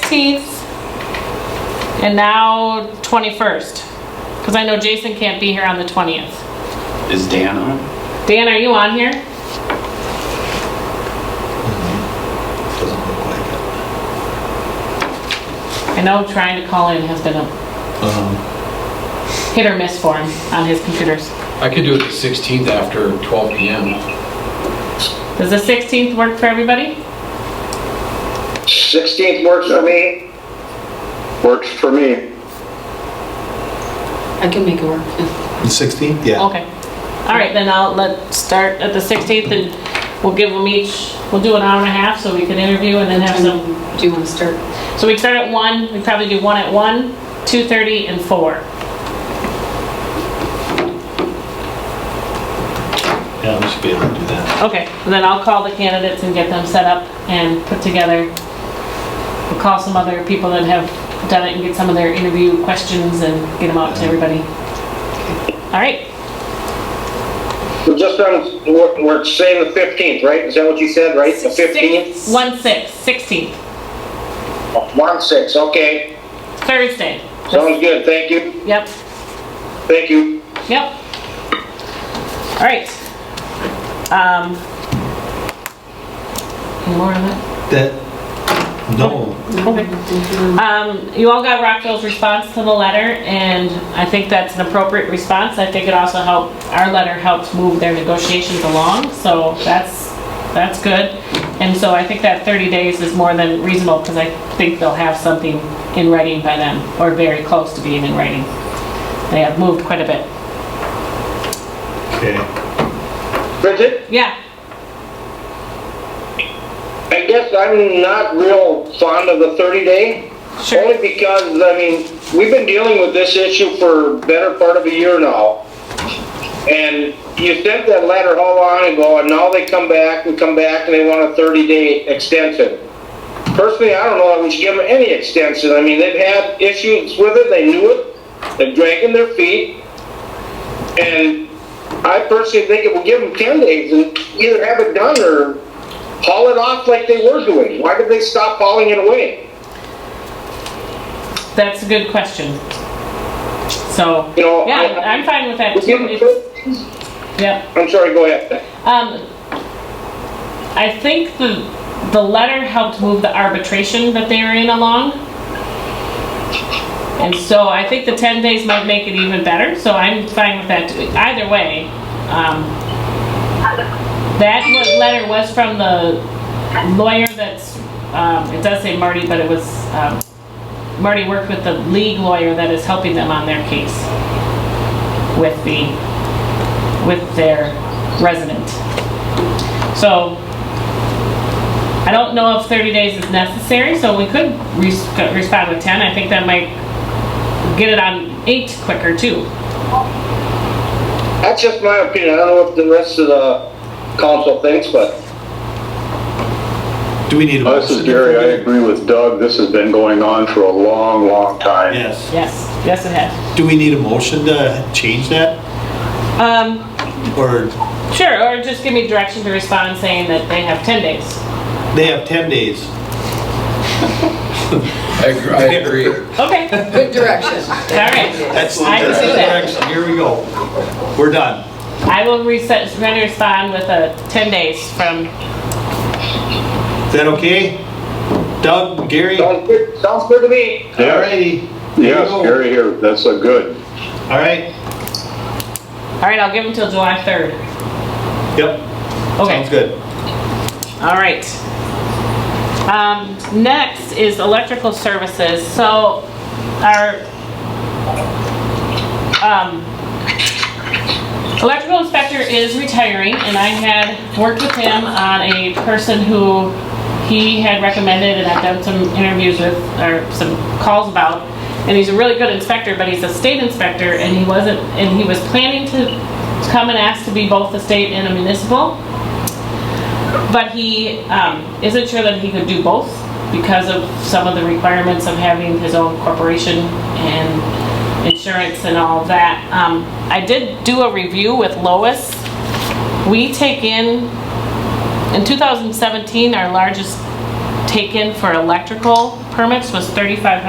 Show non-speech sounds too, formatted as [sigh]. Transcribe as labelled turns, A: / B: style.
A: 16th, and now 21st. Because I know Jason can't be here on the 20th.
B: Is Dan on?
A: Dan, are you on here?
C: Mm-hmm. Doesn't look like it.
A: I know trying to call in has been a
C: Um,
A: hit or miss for him on his computers.
D: I could do it the 16th after 12 PM.
A: Does the 16th work for everybody?
E: 16th works for me. Works for me.
F: I can make it work.
C: The 16th? Yeah.
A: Okay. All right, then I'll let, start at the 16th and we'll give them each, we'll do an hour and a half so we can interview and then have some,
F: Do you want to start?
A: so we start at 1, we probably do 1 at 1, 2:30 and 4.
C: Yeah, we should be able to do that.
A: Okay, and then I'll call the candidates and get them set up and put together. We'll call some other people that have done it and get some of their interview questions and get them out to everybody. All right,
E: We're just on, we're, we're saying the 15th, right? Is that what you said, right? The 15th?
A: one six, 16th,
E: One six, okay.
A: Thursday.
E: Sounds good, thank you,
A: Yep,
E: thank you.
A: yep. All right. Um. Any more on that?
C: That, no,
A: Um, you all got Rockville's response to the letter, and I think that's an appropriate response. I think it also helped, our letter helped move their negotiations along, so that's, that's good. And so I think that 30 days is more than reasonable, because I think they'll have something in writing by then, or very close to being in writing. They have moved quite a bit.
C: okay.
E: Bridget,
A: Yeah,
E: I guess I'm not real fond of the 30 day.
A: sure.
E: Only because, I mean, we've been dealing with this issue for better part of a year now. And you sent that letter how long ago, and now they come back and come back and they want a 30-day extension. Personally, I don't know that we should give them any extension. I mean, they've had issues with it, they knew it, they're dragging their feet. And I personally think it will give them 10 days and either have it done or haul it off like they were doing. Why did they stop hauling it away?
A: That's a good question. So,
E: You know,
A: yeah,
E: I-
A: I'm fine with that
E: We'll give
A: too.
E: them
A: It's- Yep.
E: I'm sorry, go ahead.
A: Um, I think the, the letter helped move the arbitration that they were in along. And so I think the 10 days might make it even better, so I'm fine with that. too. Either way, um, that wa- letter was from the lawyer that's, um, it does say Marty, but it was, um, Marty worked with the league lawyer that is helping them on their case with the, with their resident. So, I don't know if 30 days is necessary, so we could res- respond with 10. I think that might get it on eight quicker too.
E: That's just my opinion. I don't know what the rest of the council thinks, but
C: Do we need a
G: Uh,
C: motion?
G: This is Gary, I agree with Doug, this has been going on for a long, long time.
C: Yes.
A: Yes, yes it has.
C: Do we need a motion to change that?
A: Um,
C: Or
A: sure, or just give me direction to respond saying that they have 10 days.
C: they have 10 days?
D: I agree- I agree.
A: Okay, all
F: [laughs] Good direction.
A: right.
C: That's,
A: I can
C: that's
A: see
C: the
A: that.
C: direction, here we go. We're done.
A: I will reset, try to respond with a 10 days from,
C: Is that okay? Doug, Gary? All
E: sounds good, sounds good to me.
C: righty.
G: Yes, Gary here, that's a good.
C: All right,
A: all right, I'll give them till July 3rd.
C: yep,
A: Okay.
C: sounds good.
A: All right. Um, next is electrical services. So our, um, electrical inspector is retiring and I had worked with him on a person who he had recommended and I've done some interviews with, or some calls about. And he's a really good inspector, but he's a state inspector and he wasn't, and he was planning to come and ask to be both a state and a municipal but he um, isn't sure that he could do both because of some of the requirements of having his own corporation and insurance and all that. Um, I did do a review with Lois. We take in, in 2017, our largest take in for electrical permits was thirty-five hundred